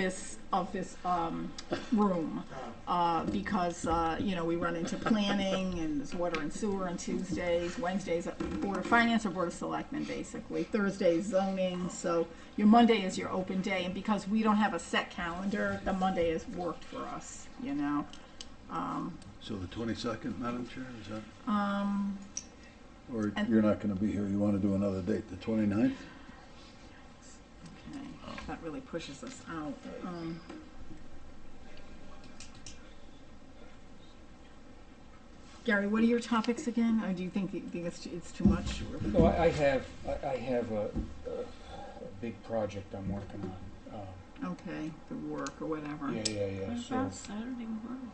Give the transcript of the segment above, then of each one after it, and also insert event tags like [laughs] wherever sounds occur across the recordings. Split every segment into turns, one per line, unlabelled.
this, of this um, room, uh, because, uh, you know, we run into planning, and there's water and sewer on Tuesdays, Wednesdays, uh, Board of Finance or Board of Selectmen, basically, Thursday's zoning, so your Monday is your open day, and because we don't have a set calendar, the Monday has worked for us, you know?
So the twenty-second, Madam Chair, is that?
Um,
Or
And-
you're not gonna be here, you wanna do another date, the 29th?
okay, that really pushes us out. Um, Gary, what are your topics again? Or do you think, think it's, it's too much? or-
No, I, I have, I, I have a, a, a big project I'm working on. Um,
Okay, the work or whatever.
yeah, yeah, yeah,
What
so,
about Saturday morning?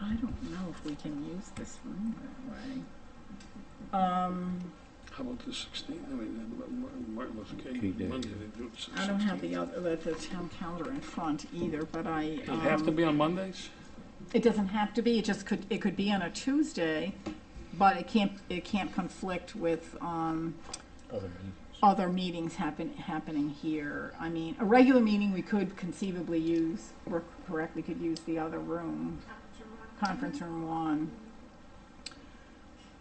I don't know if we can use this room that way. Um,
How about the sixteenth, I mean, uh, Ma- Ma- Martin Luther
King
King,
Day,
Monday, they do it six-
I don't have the
16th.
other, the, the town calendar in front either, but I,
Does it have to
um,
be on Mondays?
it doesn't have to be, it just could, it could be on a Tuesday, but it can't, it can't conflict with, um,
other meetings.
other meetings happen, happening here. I mean, a regular meeting, we could conceivably use, or correctly could use the other room, conference room one.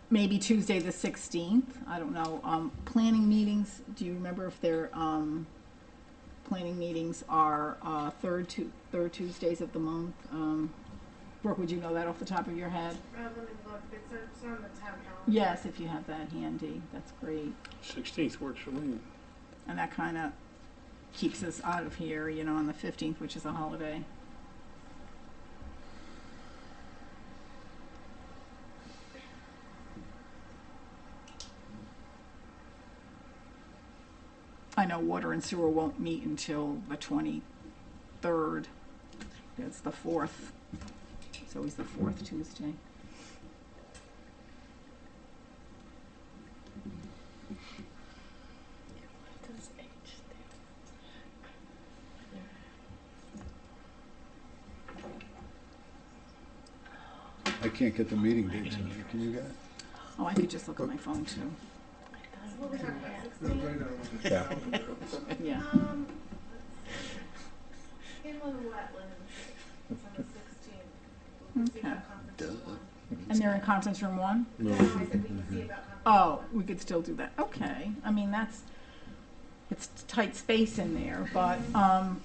Maybe Tuesday the sixteenth, I don't know, um, planning meetings, do you remember if they're, um, planning meetings are, uh, third Tu- third Tuesdays of the month? Um, Brooke, would you know that off the top of your head?
Uh, let me look, it's, it's on the town calendar.
Yes, if you have that handy, that's great.
Sixteenth works for me.
And that kind of keeps us out of here, you know, on the 15th, which is a holiday. I know water and sewer won't meet until the 23rd. It's the 4th. It's always the 4th Tuesday.
What does H stand
I can't get the meeting dates, in there. can you guys?
Oh, I could just look at my phone too.
What we're talking about, sixteen,
Yeah.
Yeah.
um, let's see. inland wetlands, it's on the sixteenth. We can see about conference
Duh.
one.
And they're in conference room one?
No, I said we can see about conference
Oh, we could still do that, okay, I mean, that's, it's tight space in there, but, um,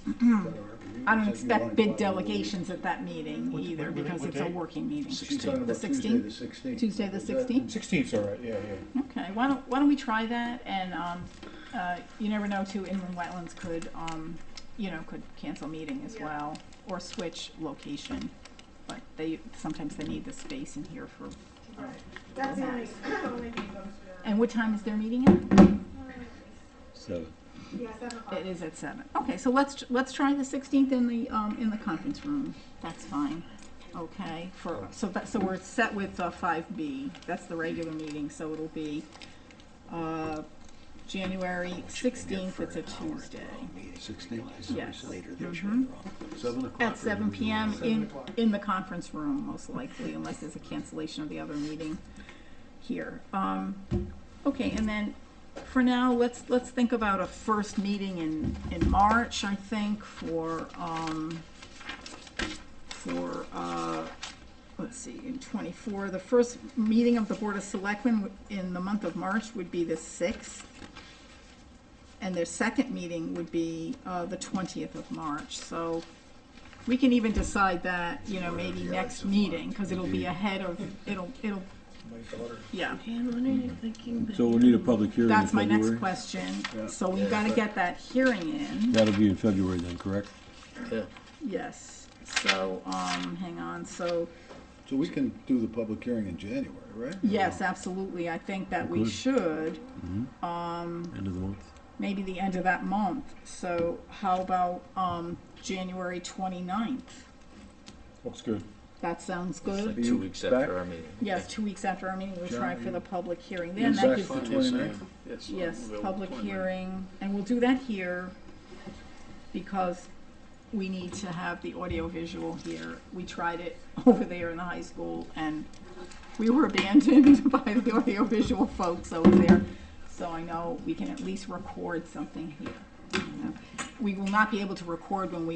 [clears throat] I don't expect big delegations at that meeting
What-
either,
what- what-
because
what
it's a
date?
working meeting.
She's talking
The
about Tuesday the
sixteenth,
sixteenth.
Tuesday the sixteenth,
Sixteenth's all right, yeah, yeah.
okay, why don't, why don't we try that, and, um, uh, you never know, too, inland wetlands could, um, you know, could cancel meeting as
Yeah.
well, or switch location, but they, sometimes they need the space in here for,
one. Right. That's the only, only thing that goes
Oh. and what time is their meeting at?
Seven.
through. Yeah, seven o'clock.
It is at seven. Okay, so let's, let's try the sixteenth in the, um, in the conference room. That's fine. Okay, for, so that, so we're set with, uh, five B. That's the regular meeting, so it'll be, uh, January sixteenth, it's a Tuesday.
Sixteenth,
Yes. Mhm.
seven o'clock.
At
or-
seven PM in, in the conference room, most likely, unless there's a cancellation of the other meeting here. Um, okay, and then for now, let's, let's think about a first meeting in, in March, I think, for, um, for, uh, let's see, in twenty-four, the first meeting of the Board of Selectmen w- in the month of March would be the sixth. And their second meeting would be, uh, the twentieth of March, so we can even decide that, you know, maybe
Yeah,
next
it's a
meeting,
month,
cause it'll be
indeed.
ahead of, it'll, it'll,
My daughter.
yeah.
Dan, what are you thinking?
So we'll need a public hearing in
That's my
February?
next question, so we've gotta
Yeah.
get that hearing in.
That'll be in February then, correct?
Yes, so, um, hang on, so,
So we can do the public hearing in January, right?
yes, absolutely, I think that we
Good. Mm-hmm.
should, um,
End of the month?
maybe the end of that month. So how about, um, January twenty-ninth?
Looks good.
That sounds
It's
good?
like two weeks
back?
after our meeting.
Yes, two weeks after our meeting, we'll try for the public hearing
You're
then, that
back
gives,
for
Fine,
29th?
yes, I am. Yes. I'm
yes,
available
public
29th.
hearing, and we'll do that here because we need to have the audiovisual here. We tried it [laughs] over there in the high school and we were abandoned [laughs] by the audiovisual folks over there. So I know we can at least record something here. We will not be able to record when we